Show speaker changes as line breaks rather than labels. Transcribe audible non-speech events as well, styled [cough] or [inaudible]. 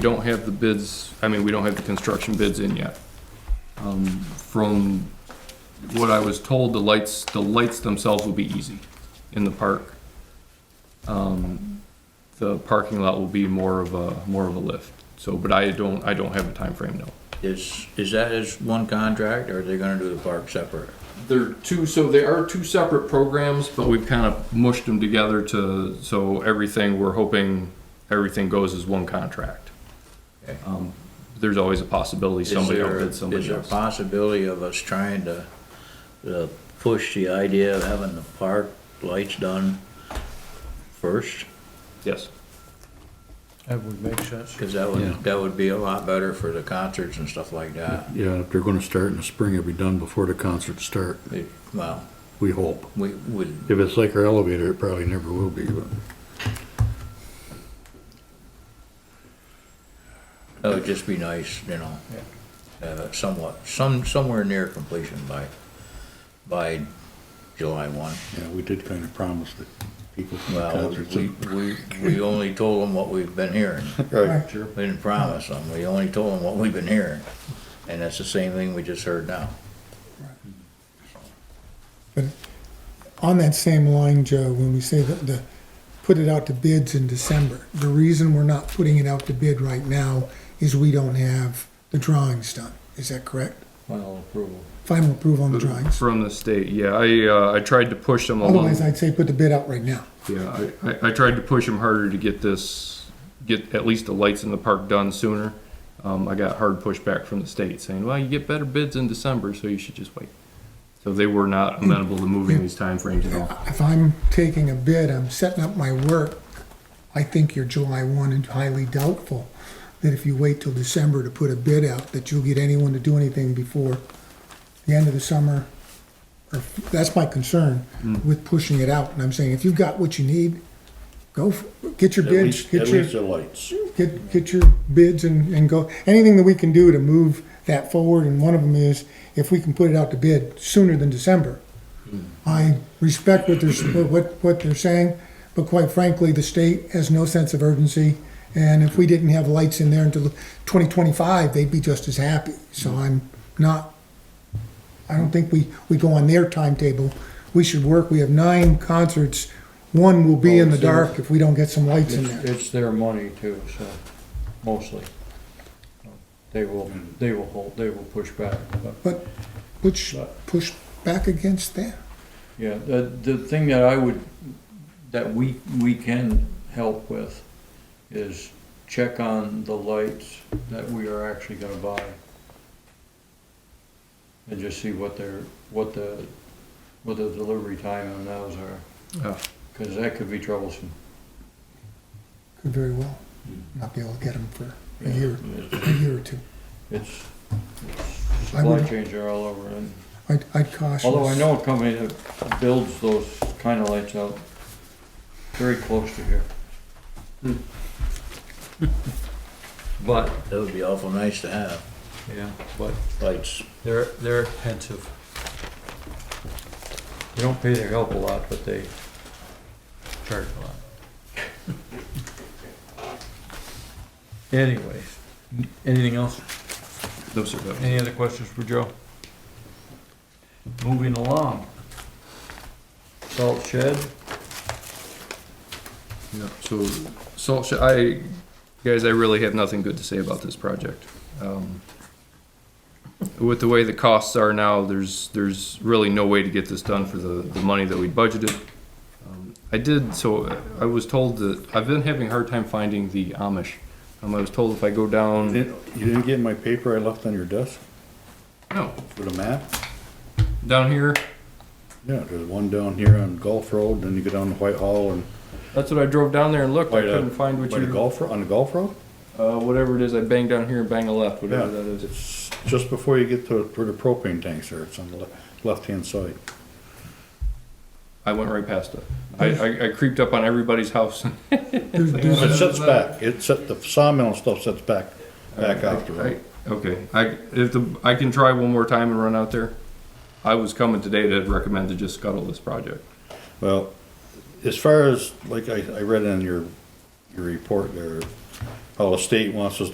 We don't have the bids, I mean, we don't have the construction bids in yet. Um, From what I was told, the lights, the lights themselves will be easy in the park. Um, The parking lot will be more of a, more of a lift, so, but I don't, I don't have a time frame. no.
Is, is that as one contract, or are they gonna do the park separate?
They're two, so they are two separate programs, but we've kind of mushed them together to, so everything, we're hoping everything goes as one contract.
Okay.
Um, There's always a possibility
Is
somebody
there-
outbids
Is
somebody
there a
else.
possibility of us trying to, uh, push the idea of having the park lights done first?
Yes,
That would make sense.
Cause that
Yeah.
would, that would be a lot better for the concerts and stuff like that.
Yeah, if they're gonna start in the spring, it'll be done before the concerts start,
It- Well,
we hope.
we would,
If it's like our elevator, it probably never will be, but
it would just be nice, you know, uh, somewhat, some, somewhere near completion by, by July one.
yeah, we did kind of promise that people from the
Well,
concerts.
we, we, we only told them what we've been hearing.
Right.
We didn't promise them, we only told them what we've been hearing, and that's the same thing we just heard now.
On that same line, Joe, when we say that the, put it out to bids in December, the reason we're not putting it out to bid right now is we don't have the drawings done. Is that correct?
Final approval.
Final approval on the drawings.
from the state, yeah, I, uh, I tried to push them along.
Otherwise, I'd say put the bid out right now.
Yeah, I, I, I tried to push him harder to get this, get at least the lights in the park done sooner. Um, I got hard pushback from the state saying, well, you get better bids in December, so you should just wait. So they were not amenable to moving these timeframes at all.
If I'm taking a bid, I'm setting up my work, I think you're July one and highly doubtful that if you wait till December to put a bid out, that you'll get anyone to do anything before the end of the summer. Or, that's my concern with pushing it out, and I'm saying, if you've got what you need, go, for- get your bids, get your
the lights.
get, get your bids and, and go, anything that we can do to move that forward, and one of them is, if we can put it out to bid sooner than December. Hmm. I respect what they're, what, what they're saying, but quite frankly, the state has no sense of urgency, and if we didn't have lights in there until twenty twenty-five, they'd be just as happy, so I'm not, I don't think we, we go on their timetable, we should work, we have nine concerts, one will be in the dark Oh, if we don't get some lights in there.
It's, it's their money too, so, mostly. They will, they will hold, they will push back, but.
But which push back against that?
Yeah, the, the thing that I would, that we, we can help with is check on the lights that we are actually gonna buy. And just see what their, what the, what the delivery time on those
Yeah.
are. Cause that could be troublesome.
Could very well not be able to get them for a year, a year or two.
It's, it's
I would-
supply chains are all over and,
I'd, I'd caution.
although I
us.
know a company that builds those kinda lights out very close to here.
Hmm. But,
That would be awful nice to have,
yeah, but
lights.
they're, they're expensive.
You don't pay their help a lot, but they
charge a lot. Anyways, anything else?
No, sir, no.
Any other questions for Joe? Moving along. Salt shed,
Yeah, so, salt shed, I, guys, I really have nothing good to say about this project. Um, With the way the costs are now, there's, there's really no way to get this done for the, the money that we budgeted. Um, I did, so I was told that, I've been having a hard time finding the Amish. Um, I was told if I go down,
You didn't get my paper I left on your desk
no,
with a map?
down here,
Yeah, there's one down here on Gulf Road, then you go down to Whitehall and.
that's what I drove down there and looked, I
By the-
couldn't find what
by the
you,
Gulf, Ro- on the Gulf Road?
uh, whatever it is, I bang down here and bang a left,
Yeah,
whatever that is.
it's just before you get to where the propane tanks are, it's on the le- left-hand side.
I went right past it. I, I, I creeped up on everybody's house [laughs]
There's- there's-
It sits back, it set, the sawmill and stuff sits back, back out the
uh, I,
road.
okay, I, if the, I can try one more time and run out there. I was coming today to recommend to just scuttle this project.
Well, as far as, like I, I read in your, your report there, how the state wants us